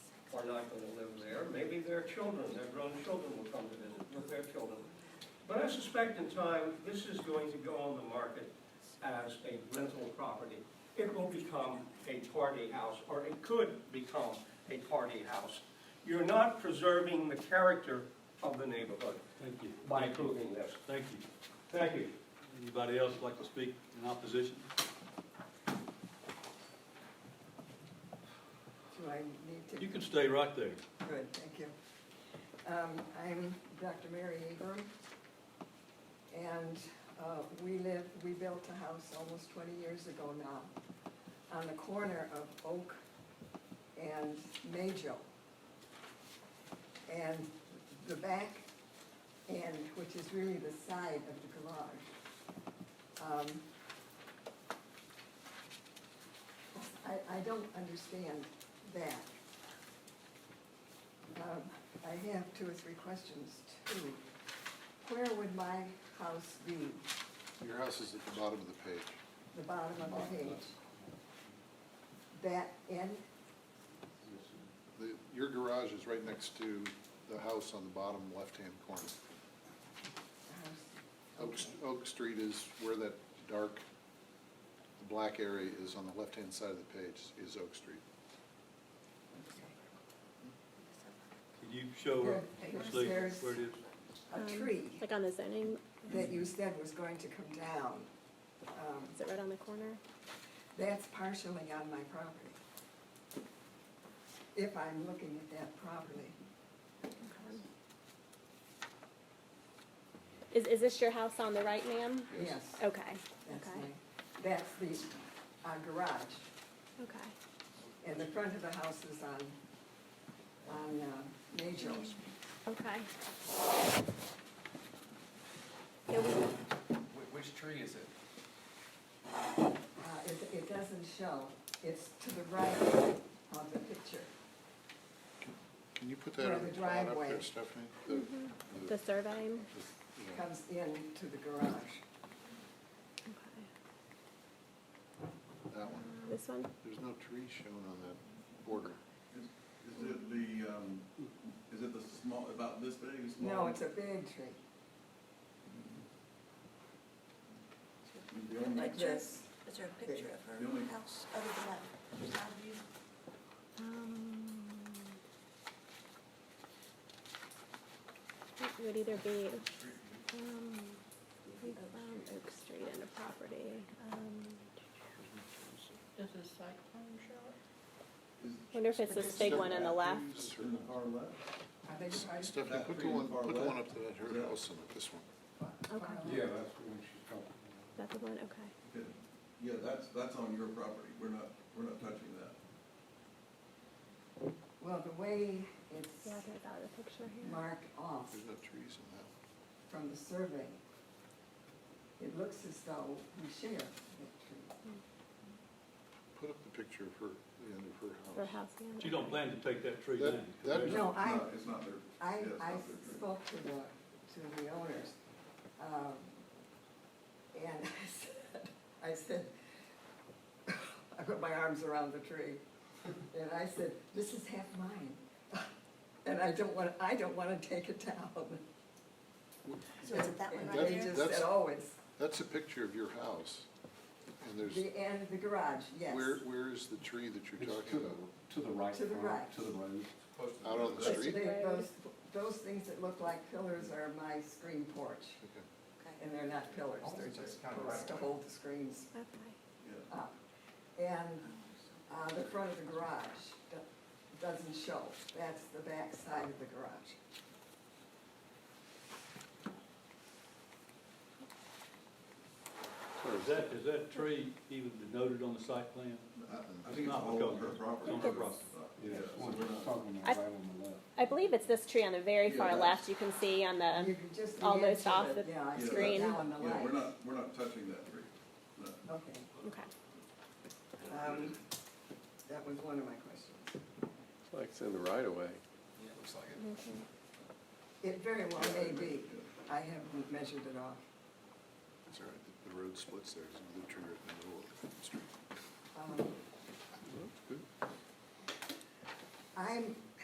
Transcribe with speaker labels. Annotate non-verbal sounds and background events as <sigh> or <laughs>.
Speaker 1: not gonna live there. Maybe their children, their grown children will come to visit with their children. But I suspect in time, this is going to go on the market as a rental property. It will become a party house, or it could become a party house. You're not preserving the character of the neighborhood
Speaker 2: Thank you.
Speaker 1: by approving this.
Speaker 2: Thank you.
Speaker 1: Thank you.
Speaker 2: Anybody else like to speak in opposition?
Speaker 3: Do I need to?
Speaker 2: You can stay right there.
Speaker 3: Good, thank you. Um, I'm Dr. Mary Egram, and uh, we live, we built a house almost 20 years ago now on the corner of Oak and Majo. And the back end, which is really the side of the garage, um, I, I don't understand that. Um, I have two or three questions too. Where would my house be?
Speaker 4: Your house is at the bottom of the page.
Speaker 3: The bottom of the page? That end?
Speaker 4: The- Your garage is right next to the house on the bottom left-hand corner.
Speaker 3: The house?
Speaker 4: Oak,
Speaker 3: Okay.
Speaker 4: Oak Street is where that dark, black area is on the left-hand side of the page, is Oak Street.
Speaker 2: Can you show her,
Speaker 3: Yeah,
Speaker 2: Ms.
Speaker 3: yes,
Speaker 2: Lee, where it
Speaker 3: there's-
Speaker 2: is?
Speaker 3: A
Speaker 5: Um,
Speaker 3: tree
Speaker 5: Like on the zoning,
Speaker 3: that you said was going to come down, um,
Speaker 5: is it right on the corner?
Speaker 3: that's partially on my property. If I'm looking at that properly.
Speaker 5: Is, is this your house on the right, ma'am?
Speaker 3: Yes.
Speaker 5: Okay,
Speaker 3: That's
Speaker 5: Oh, okay,
Speaker 3: my, that's the uh, garage,
Speaker 5: okay.
Speaker 3: and the front of the house is on, on uh, Major.
Speaker 5: Okay. Yeah, we-
Speaker 6: Wh- Which tree is it?
Speaker 3: Uh, It, it doesn't show, it's to the right of the picture.
Speaker 4: Can you put
Speaker 3: Where
Speaker 4: that on
Speaker 3: the
Speaker 4: the plan up
Speaker 3: driveway- Mm-hmm.
Speaker 4: there, Stephanie? The- the-
Speaker 5: The surveying,
Speaker 4: the- yeah.
Speaker 3: Comes in to the garage.
Speaker 5: okay.
Speaker 4: That one.
Speaker 5: This one?
Speaker 4: There's no tree shown on that border.
Speaker 7: Is is it the, um, is it the small, about this big, small?
Speaker 3: No, it's a big tree,
Speaker 7: The only-
Speaker 3: like this.
Speaker 8: Is there a picture of
Speaker 7: The only-
Speaker 8: her house other than that side view?
Speaker 5: Um, It would either be, um, we found Oak Street and a property. um,
Speaker 9: Does the site plan show
Speaker 7: is-
Speaker 5: Wonder if it's this big one on the left?
Speaker 7: Is it in the far left?
Speaker 3: I beg your pardon?
Speaker 4: Stephanie,
Speaker 7: That
Speaker 4: put the
Speaker 7: tree
Speaker 4: one,
Speaker 7: far
Speaker 4: put the one
Speaker 7: left.
Speaker 4: up to that her
Speaker 7: Yeah.
Speaker 4: house and this one.
Speaker 5: Okay,
Speaker 1: Yeah, that's what she's talking about.
Speaker 5: that's the one, okay.
Speaker 7: Okay. Yeah, that's, that's on your property. We're not, we're not touching that.
Speaker 3: Well, the way it's
Speaker 5: Yeah, I think I got a picture here.
Speaker 3: marked off
Speaker 4: There's no trees in that.
Speaker 3: from the survey, it looks as though we share that tree.
Speaker 4: Put up the picture of her, the end of her house.
Speaker 5: For house. yeah.
Speaker 2: But you don't plan to take that tree
Speaker 4: That-
Speaker 2: down?
Speaker 4: that-
Speaker 7: It's
Speaker 3: No,
Speaker 7: not-
Speaker 3: I-
Speaker 7: It's not their, yeah,
Speaker 3: I,
Speaker 7: it's
Speaker 3: I
Speaker 7: not their tree.
Speaker 3: spoke to the, to the owners, um, and <laughs> I said, I said, <laughs> I put my arms around the tree, and I said, this is half mine, <laughs> and I don't want, I don't want to take it down.
Speaker 8: So is it that one
Speaker 3: And
Speaker 8: right
Speaker 4: That-
Speaker 3: they
Speaker 8: there?
Speaker 3: just
Speaker 4: That's-
Speaker 3: said, oh, it's
Speaker 4: That's a picture of your house, and there's,
Speaker 3: the end of the garage, yes.
Speaker 4: where, where is the tree that you're
Speaker 10: It's
Speaker 4: talking about?
Speaker 10: To the right.
Speaker 3: To the
Speaker 10: uh,
Speaker 3: right.
Speaker 10: To the road.
Speaker 7: Close to
Speaker 4: Out on the
Speaker 7: that's-
Speaker 3: Those-
Speaker 4: street?
Speaker 3: they- Those, those things that look like pillars are my screen porch,
Speaker 4: Okay.
Speaker 8: Okay.
Speaker 3: and they're not pillars, they're
Speaker 6: Almost
Speaker 3: just
Speaker 6: kind of
Speaker 3: posts to
Speaker 6: right.
Speaker 3: hold the screens
Speaker 5: Okay.
Speaker 7: Yeah.
Speaker 3: up. And uh, the front of the garage do- doesn't show. That's the back side of the garage.
Speaker 2: Or is that, is that tree even denoted on the site plan?
Speaker 7: I I think
Speaker 2: It's
Speaker 7: it's
Speaker 2: not
Speaker 7: all on
Speaker 2: because-
Speaker 7: her property.
Speaker 2: it's on her property.
Speaker 7: Yeah,
Speaker 10: Yes,
Speaker 7: so
Speaker 10: one
Speaker 7: we're
Speaker 10: that's
Speaker 7: not-
Speaker 10: talking
Speaker 5: I-
Speaker 10: about right on the left.
Speaker 5: I believe it's this tree on the very far
Speaker 7: Yeah.
Speaker 5: left, you can see on
Speaker 3: You
Speaker 5: the,
Speaker 3: can just.
Speaker 5: almost
Speaker 3: imagine
Speaker 5: off
Speaker 3: it,
Speaker 5: the
Speaker 3: yeah, I see it
Speaker 5: screen.
Speaker 3: Now in the
Speaker 7: Yeah, we're
Speaker 3: light.
Speaker 7: not, we're not touching that tree. No.
Speaker 3: Okay.
Speaker 5: okay.
Speaker 3: Um, That was one of my questions.
Speaker 11: Like it's in the right of way.
Speaker 6: Yeah, it looks like it.
Speaker 3: It very well may be. I haven't measured it off.
Speaker 4: It's all right, the- the road splits there, there's another tree right in the middle of the street.
Speaker 3: Um,
Speaker 4: Well, that's good.
Speaker 3: I'm,